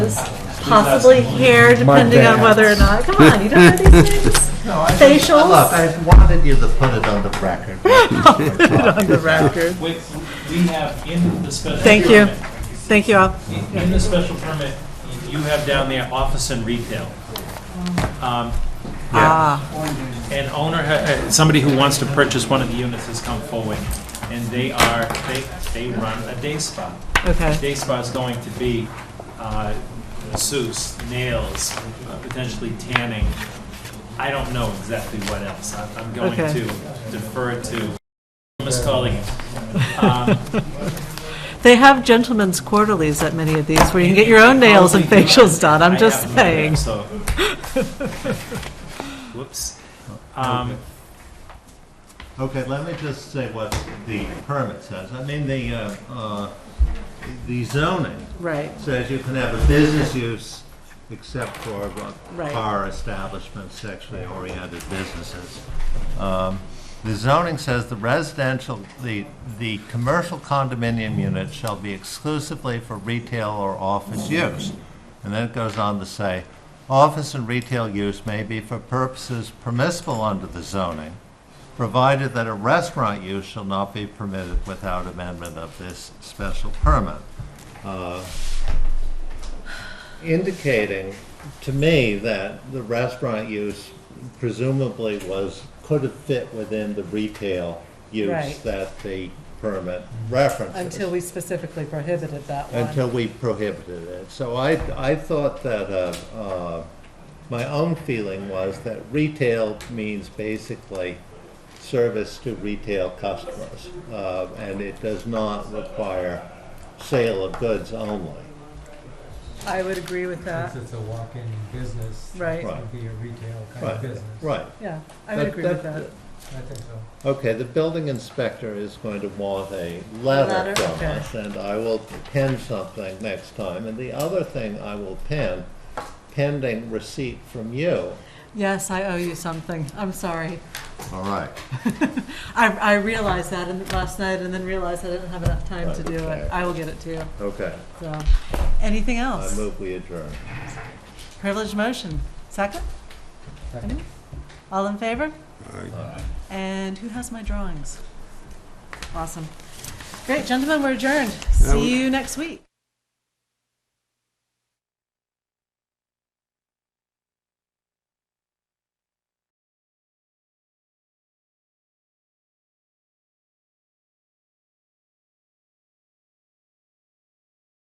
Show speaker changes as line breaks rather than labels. possibly hair, depending on whether or not, come on, you don't know these things?
No, I-
Facials?
Look, I wanted you to put it on the record.
On the record.
We, we have in the special.
Thank you.
permit-
Thank you all.
in- In the special permit, you have down there office and retail. Um,
Ah,
An owner, ha- uh, somebody who wants to purchase one of the units has come forward, and they are, they, they run a day spa.
okay.
Day spa is going to be uh, masseuse, nails, uh, potentially tanning. I don't know exactly what else. I- I'm going
Okay.
to defer to Ms. Colligan. Um,
They have gentlemen's quarterlies at many of these, where you can get your own nails and facials done, I'm
I
just
have no
saying.
idea, so- Whoops. Um,
Okay, let me just say what the permit says. I mean, the, uh, uh, the zoning
Right,
says you can have a business use except for uh,
Right.
bar establishments, sexually oriented businesses. Um, The zoning says the residential, the, the commercial condominium unit shall be exclusively for retail or office use. And then it goes on to say, office and retail use may be for purposes permissible under the zoning, provided that a restaurant use shall not be permitted without amendment of this special permit Uh, indicating to me that the restaurant use presumably was, could have fit within the retail use
Right.
that the permit references.
until we specifically prohibited that one.
Until we prohibited it. So I, I thought that, uh, uh, my own feeling was that retail means basically service to retail customers. Uh, and it does not require sale of goods only.
I would agree with
Since it's a walk-in business.
Right.
It would be a retail kind of
Right,
business.
right.
yeah,
That- that-
I think so.
Okay, the building inspector is going to want a letter
Letter,
from
okay.
us, and I will pin something next time. And the other thing I will pin, pending receipt from you.
Yes, I owe you something, I'm sorry.
All right.
I, I realized that in- last night and then realized I didn't have enough time to do
Okay.
it. I will get it to you,
Okay,
so. Anything
I
else?
move we adjourn.
Privileged motion, second?
Second.
All in favor? And who has my drawings? Awesome. Great, gentlemen, we're adjourned. See you next week.